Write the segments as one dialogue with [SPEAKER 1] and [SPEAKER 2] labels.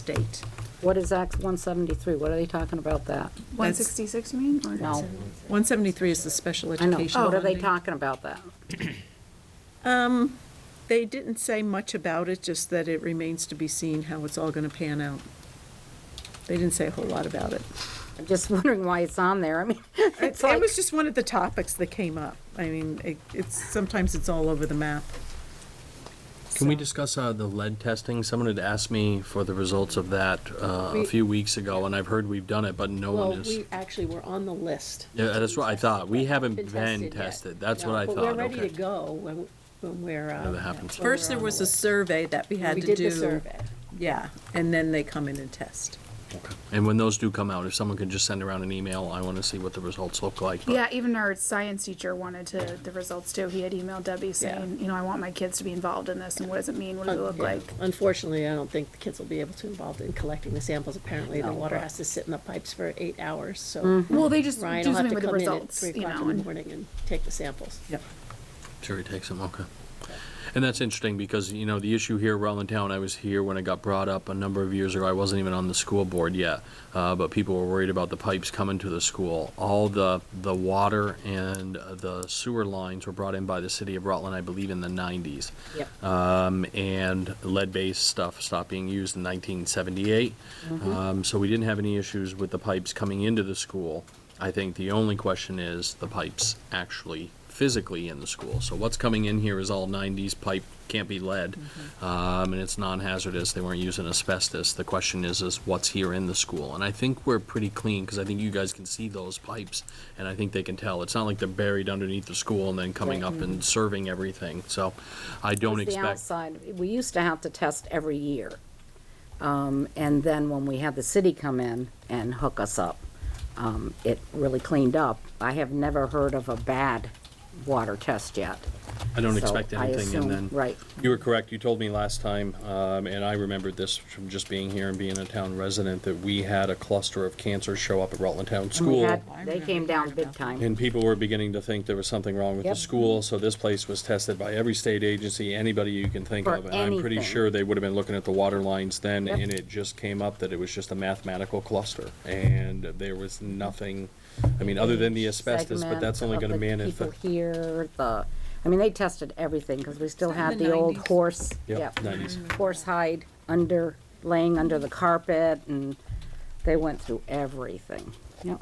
[SPEAKER 1] state.
[SPEAKER 2] What is Act 173? What are they talking about that?
[SPEAKER 3] 166, you mean? or-
[SPEAKER 2] No,
[SPEAKER 1] 173 is the special
[SPEAKER 2] I know.
[SPEAKER 1] education
[SPEAKER 2] Oh, What are they
[SPEAKER 1] funding.
[SPEAKER 2] talking about that?
[SPEAKER 1] Um, they didn't say much about it, just that it remains to be seen how it's all going to pan out. They didn't say a whole lot about it.
[SPEAKER 2] I'm just wondering why it's on there. I mean,
[SPEAKER 1] It
[SPEAKER 2] it's
[SPEAKER 1] it
[SPEAKER 2] like,
[SPEAKER 1] was just one of the topics that came up. I mean, it- it's, sometimes it's all over the map.
[SPEAKER 4] Can we discuss uh, the lead testing? Someone had asked me for the results of that uh, a
[SPEAKER 5] We-
[SPEAKER 4] few weeks ago, and I've heard we've done it, but no
[SPEAKER 5] Well,
[SPEAKER 4] one is.
[SPEAKER 5] we actually were on the list.
[SPEAKER 4] Yeah, that's what I thought. We haven't been
[SPEAKER 5] yet.
[SPEAKER 4] tested. That's
[SPEAKER 5] No,
[SPEAKER 4] what I
[SPEAKER 5] But we're
[SPEAKER 4] thought.
[SPEAKER 5] ready to
[SPEAKER 4] Okay.
[SPEAKER 5] go when, when we're. uh,
[SPEAKER 4] Yeah, that happens.
[SPEAKER 5] when we're
[SPEAKER 1] First, there
[SPEAKER 5] on the
[SPEAKER 1] was a
[SPEAKER 5] list.
[SPEAKER 1] survey that we had
[SPEAKER 5] We
[SPEAKER 1] to do.
[SPEAKER 5] did the survey.
[SPEAKER 1] Yeah, and then they come in and test.
[SPEAKER 4] And when those do come out, if someone can just send around an email, I want to see what the results look like. but-
[SPEAKER 3] Yeah, even our science teacher wanted to, the results too. He had emailed Debbie saying, you know, I want my kids to be involved in this and what does it mean? What does it look like?
[SPEAKER 5] Unfortunately, I don't think the kids will be able to involved in collecting the samples. Apparently, the water has to sit in the pipes for eight hours, so.
[SPEAKER 3] Mm-hmm. Well, they just
[SPEAKER 5] Mm-hmm. Ryan
[SPEAKER 3] do
[SPEAKER 5] will have
[SPEAKER 3] something
[SPEAKER 5] to
[SPEAKER 3] with the
[SPEAKER 5] come in at
[SPEAKER 3] results,
[SPEAKER 5] three
[SPEAKER 3] you
[SPEAKER 5] o'clock
[SPEAKER 3] know,
[SPEAKER 5] in the
[SPEAKER 3] and
[SPEAKER 5] morning and take the samples.
[SPEAKER 1] Yep.
[SPEAKER 4] Sure, he takes them, okay. And that's interesting because, you know, the issue here, Rutland Town, I was here when it got brought up a number of years ago. I wasn't even on the school board yet. Uh, but people were worried about the pipes coming to the school. All the, the water and uh, the sewer lines were brought in by the city of Rutland, I believe, in the nineties.
[SPEAKER 2] Yep.
[SPEAKER 4] Um, and lead-based stuff stopped being used in nineteen seventy-eight. Um, so we didn't have any issues with the pipes coming into the school. I think the only question is the pipes actually physically in the school. So what's coming in here is all nineties pipe, can't be lead, um, and it's non-hazardous, they weren't using asbestos. The question is, is what's here in the school? And I think we're pretty clean, because I think you guys can see those pipes, and I think they can tell. It's not like they're buried underneath the school and then coming up and serving everything, so I don't
[SPEAKER 2] it's the
[SPEAKER 4] expect.
[SPEAKER 2] outside, we used to have to test every year. Um, And then when we had the city come in and hook us up, um, it really cleaned up. I have never heard of a bad water test yet.
[SPEAKER 4] I don't
[SPEAKER 2] So
[SPEAKER 4] expect
[SPEAKER 2] I
[SPEAKER 4] anything,
[SPEAKER 2] assume-
[SPEAKER 4] and then.
[SPEAKER 2] Right.
[SPEAKER 4] You were correct, you told me last time, um, and I remembered this from just being here and being a town resident, that we had a cluster of cancers show up at Rutland Town
[SPEAKER 2] And we
[SPEAKER 4] School.
[SPEAKER 2] had,
[SPEAKER 1] I
[SPEAKER 2] they
[SPEAKER 1] remember
[SPEAKER 2] came down
[SPEAKER 1] hearing
[SPEAKER 2] big
[SPEAKER 1] about that.
[SPEAKER 2] time.
[SPEAKER 4] And people were beginning to think there was something wrong with the
[SPEAKER 2] Yep.
[SPEAKER 4] school, so this place was tested by every state agency, anybody you can think
[SPEAKER 2] For
[SPEAKER 4] of. And I'm pretty
[SPEAKER 2] anything.
[SPEAKER 4] sure they would have been looking at the water lines then,
[SPEAKER 2] Yep.
[SPEAKER 4] and it just came up that it was just a mathematical cluster. And there was nothing, I mean, other than the asbestos, but that's only gonna
[SPEAKER 2] Segment of
[SPEAKER 4] manage
[SPEAKER 2] the
[SPEAKER 4] the,
[SPEAKER 2] People here, the, I mean, they tested everything, because we still had the old
[SPEAKER 1] 90s?
[SPEAKER 2] horse,
[SPEAKER 4] yeah,
[SPEAKER 2] yep,
[SPEAKER 4] nineties.
[SPEAKER 1] Mm-hmm.
[SPEAKER 2] horse hide under, laying under the carpet, and they went through everything, yep.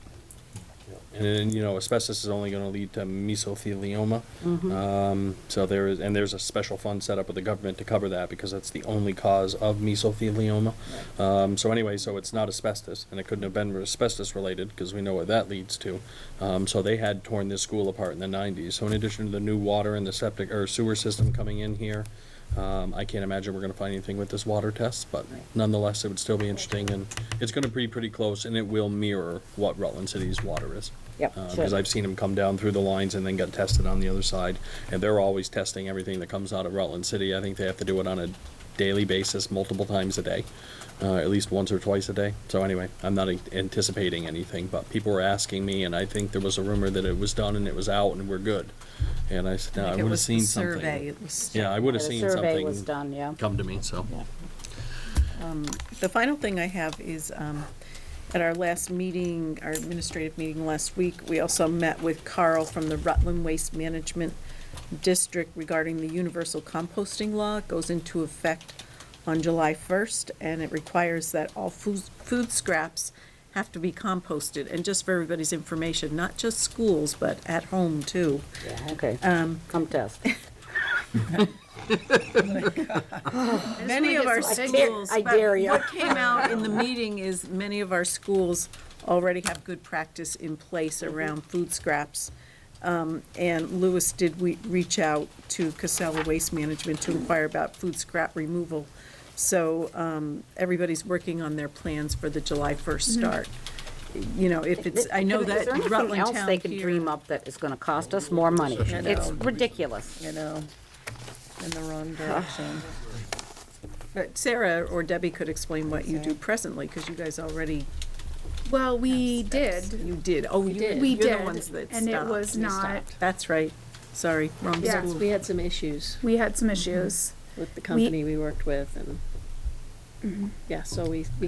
[SPEAKER 4] And then, you know, asbestos is only gonna lead to mesothelioma. Um, so there is, and there's a special fund set up with the government to cover that, because that's the only cause of mesothelioma. Um, so anyway, so it's not asbestos, and it couldn't have been asbestos-related, because we know what that leads to. Um, so they had torn this school apart in the nineties. So in addition to the new water and the septic, or sewer system coming in here, um, I can't imagine we're gonna find anything with this water test, but nonetheless, it would still be interesting, and it's gonna be pretty close, and it will mirror what Rutland City's water is.
[SPEAKER 2] Yep,
[SPEAKER 4] Because
[SPEAKER 2] sure.
[SPEAKER 4] I've seen them come down through the lines and then get tested on the other side, and they're always testing everything that comes out of Rutland City. I think they have to do it on a daily basis, multiple times a day, uh, at least once or twice a day. So anyway, I'm not anticipating anything, but people were asking me, and I think there was a rumor that it was done and it was out and we're good. And I said, no, I
[SPEAKER 1] Like, it
[SPEAKER 4] would have
[SPEAKER 1] was the
[SPEAKER 4] seen
[SPEAKER 1] Survey,
[SPEAKER 4] something.
[SPEAKER 1] it was.
[SPEAKER 4] Yeah, I would
[SPEAKER 2] The
[SPEAKER 4] have seen
[SPEAKER 2] survey was
[SPEAKER 4] something
[SPEAKER 2] done, yeah.
[SPEAKER 4] come to me, so.
[SPEAKER 1] The final thing I have is, um, at our last meeting, our administrative meeting last week, we also met with Carl from the Rutland Waste Management District regarding the universal composting law. It goes into effect on July 1st, and it requires that all food food scraps have to be composted. And just for everybody's information, not just schools, but at home, too.
[SPEAKER 2] Yeah,
[SPEAKER 1] Um,
[SPEAKER 2] okay, come test.
[SPEAKER 1] Many of our
[SPEAKER 2] some- I dare-
[SPEAKER 1] schools.
[SPEAKER 2] I
[SPEAKER 1] but
[SPEAKER 2] dare you.
[SPEAKER 1] What came out in the meeting is many of our schools already have good practice in place
[SPEAKER 2] Mm-hmm.
[SPEAKER 1] around food scraps. Um, And Lewis did we reach out to Casella Waste Management to inquire about food scrap removal. So um, everybody's working on their plans for the July 1st
[SPEAKER 2] Mm-hmm.
[SPEAKER 1] start. You know, if it's, I know
[SPEAKER 2] Is
[SPEAKER 1] that
[SPEAKER 2] there anything
[SPEAKER 1] Rutland
[SPEAKER 2] else
[SPEAKER 1] Town
[SPEAKER 2] They could
[SPEAKER 1] here-
[SPEAKER 2] dream up that is gonna cost us more money. It's ridiculous.
[SPEAKER 6] you know, in the wrong direction.
[SPEAKER 1] But Sarah or Debbie could explain what you do presently, because you guys already,
[SPEAKER 3] Well, we did.
[SPEAKER 1] you did. Oh, you
[SPEAKER 5] did.
[SPEAKER 1] did.
[SPEAKER 3] We
[SPEAKER 1] You're
[SPEAKER 3] did.
[SPEAKER 1] the ones that
[SPEAKER 3] And it
[SPEAKER 1] stopped.
[SPEAKER 3] was not,
[SPEAKER 1] That's right. Sorry, wrong
[SPEAKER 3] Yeah.
[SPEAKER 1] school.
[SPEAKER 5] We had some issues
[SPEAKER 3] we Mm-hmm. had some issues.
[SPEAKER 5] with the company we worked with and Yeah, so we, we